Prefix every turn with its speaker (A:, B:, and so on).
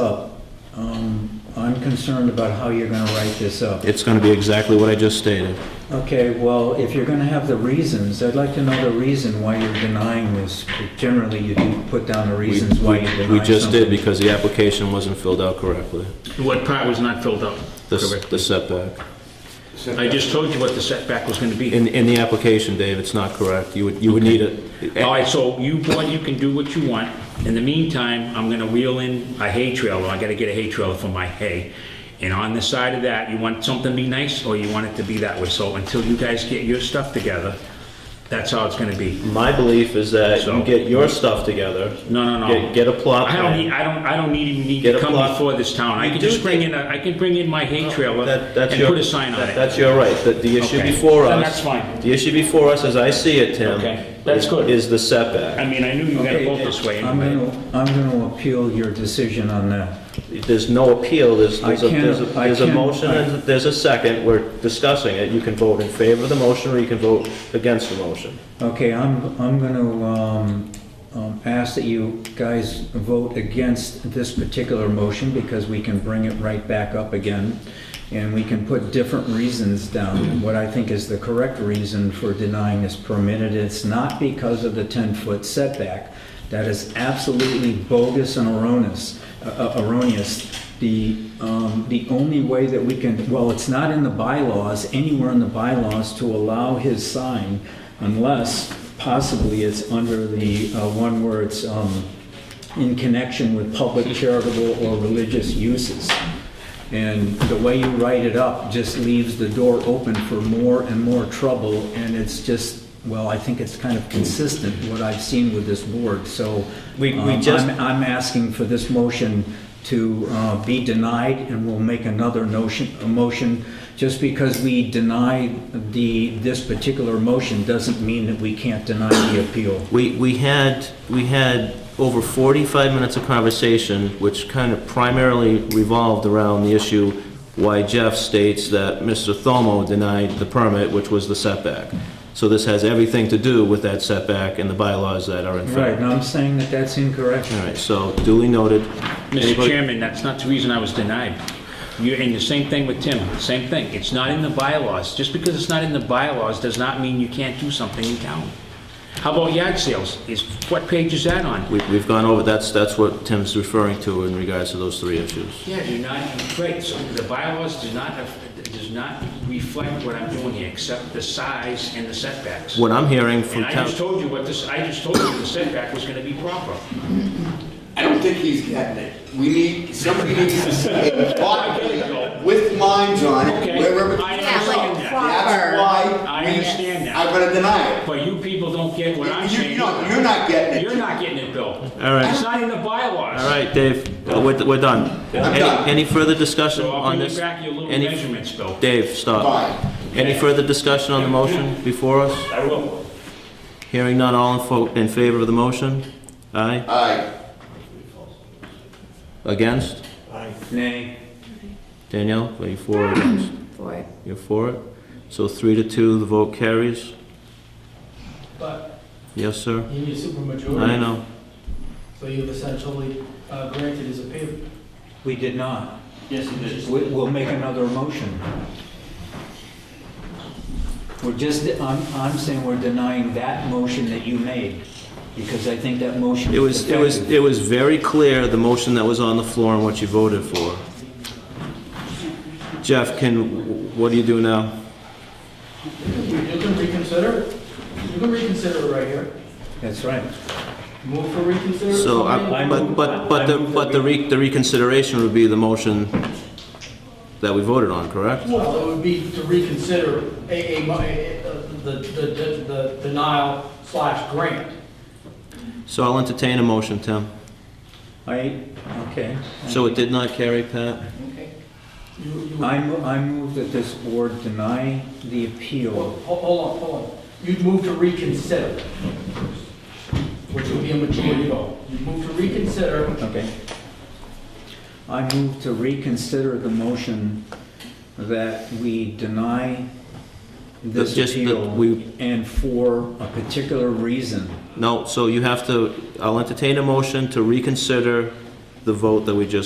A: up, um, I'm concerned about how you're gonna write this up.
B: It's going to be exactly what I just stated.
A: Okay, well, if you're gonna have the reasons, I'd like to know the reason why you're denying this. Generally, you do put down the
B: We-
A: reasons why you deny something.
B: We just did because the application wasn't filled out correctly,
C: What part was not filled out
B: the s-
C: correctly?
B: the setback.
C: I just told you what the setback was going to be.
B: In, in the application, Dave, it's not correct. You would, you would need it.
C: All right, so you, board, you can do what you want. In the meantime, I'm going to wheel in a hay trailer. I got to get a hay trailer for my hay. And on the side of that, you want something to be nice or you want it to be that way? So until you guys get your stuff together, that's how it's going to be.
B: My belief is that
C: So-
B: you get your stuff together.
C: No, no, no.
B: Get, get a plot
C: I don't need,
B: plan.
C: I don't, I don't need, even need
B: Get
C: to
B: a
C: come
B: plot.
C: before this town. I
B: You
C: can
B: do
C: just bring
B: get-
C: in, a- I can bring in my hay trailer
B: That- that's
C: and
B: your-
C: put a sign on
B: that-
C: it.
B: That's your right. The, the issue
C: Okay.
B: before us.
C: Then that's fine.
B: The issue before us, as I see it, Tim.
C: Okay. That's
B: is-
C: good.
B: Is the
C: I
B: setback.
C: mean, I knew you were going to vote this way
A: I'm
C: anyway.
A: gonna, I'm gonna appeal your decision on that.
B: There's no appeal. There's,
A: I
B: there's a,
A: can't-
B: there's a-
A: I
B: there's a
A: can't-
B: motion and there's a second. We're discussing it. You can vote in favor of the motion or you can vote against the motion.
A: Okay, I'm, I'm gonna, um, um, ask that you guys vote against this particular motion because we can bring it right back up again. And we can put different reasons down, what I think is the correct reason for denying this permit. And it's not because of the ten-foot setback. That is absolutely bogus and erroneous, uh, uh, erroneous. The, um, the only way that we can, well, it's not in the bylaws, anywhere in the bylaws to allow his sign unless possibly it's under the uh, one where it's um, in connection with public charitable or religious uses. And the way you write it up just leaves the door open for more and more trouble, and it's just, well, I think it's kind of consistent, what I've seen with this board, so.
B: We- we
A: um, I'm-
B: just-
A: I'm asking for this motion to uh, be denied, and we'll make another notion, a motion. Just because we deny the, this particular motion doesn't mean that we can't deny the appeal.
B: We, we had, we had over 45 minutes of conversation, which kind of primarily revolved around the issue why Jeff states that Mr. Thomo denied the permit, which was the setback. So this has everything to do with that setback and the bylaws that are in
A: Right,
B: fact.
A: and I'm saying that that's incorrect.
B: All right, so duly noted.
C: Mr.
B: Anybody-
C: Chairman, that's not the reason I was denied. You, and the same thing with Tim, same thing. It's not in the bylaws. Just because it's not in the bylaws does not mean you can't do something in town. How about yard sales? Is, what page is that on?
B: We- We've gone over, that's, that's what Tim's referring to in regards to those three issues.
C: Yeah, you're not, right, so the bylaws do not, uh, does not reflect what I'm doing here, except the size and the setbacks.
B: What I'm hearing from
C: And I
B: town...
C: just told you what this, I just told you the setback was gonna be proper.
D: I don't think he's getting it. We need, somebody needs to say, thoughtfully, with minds on it,
C: Okay,
D: wherever.
C: I
D: That's
E: Yeah, like
C: understand that.
E: proper.
D: why
C: I
D: we,
C: understand that.
D: I'm gonna deny it.
C: But you people don't get what I'm
D: You-
C: saying.
D: you don't- you're not getting it.
C: You're not getting it, Bill.
B: All right.
C: It's not in the bylaws.
B: All right, Dave, uh, we're, we're done. Any-
D: done.
B: Any further discussion
C: So I'll
B: on
C: bring you
B: this?
C: back your little
B: Any-
C: measurements, Bill.
B: Dave, stop.
D: Fine.
B: Any further discussion on the motion before us?
C: I will.
B: Hearing none, all in fo- in favor of the motion? Aye?
D: Aye.
B: Against?
A: Nay.
B: Danielle, are you for or against?
E: for it.
B: You're for it? So three to two, the vote carries?
F: But
B: Yes, sir?
F: you need a supermajority.
B: I know.
F: So you've essentially uh, granted his appeal.
A: We did not.
F: Yes, you did.
A: We- We'll make another motion. We're just, I'm, I'm saying we're denying that motion that you made, because I think that motion
B: It was,
A: is
B: it was,
A: effective.
B: it was very clear, the motion that was on the floor and what you voted for. Jeff, can, what do you do now?
F: You can reconsider it. You can reconsider it right here.
A: That's right.
F: Move for reconsider.
B: So,
F: something.
B: I- but, but, but the, but the re- the reconsideration would be the motion that we voted on, correct?
F: Well, it would be to reconsider a, a, mo- a- a- the, the, the- the denial slash grant.
B: So I'll entertain a motion, Tim.
A: I, okay.
B: So it did not carry, Pat?
F: You, you,
A: I, mo- I move that this board deny the
F: Well,
A: appeal.
F: ho- hold on, hold on. You'd move to reconsider, which would be a majority vote. You'd move to reconsider
A: Okay. I move to reconsider the motion that we deny this
B: Just that
A: appeal
B: we-
A: and for a particular reason.
B: No, so you have to, I'll entertain a motion to reconsider the vote that we just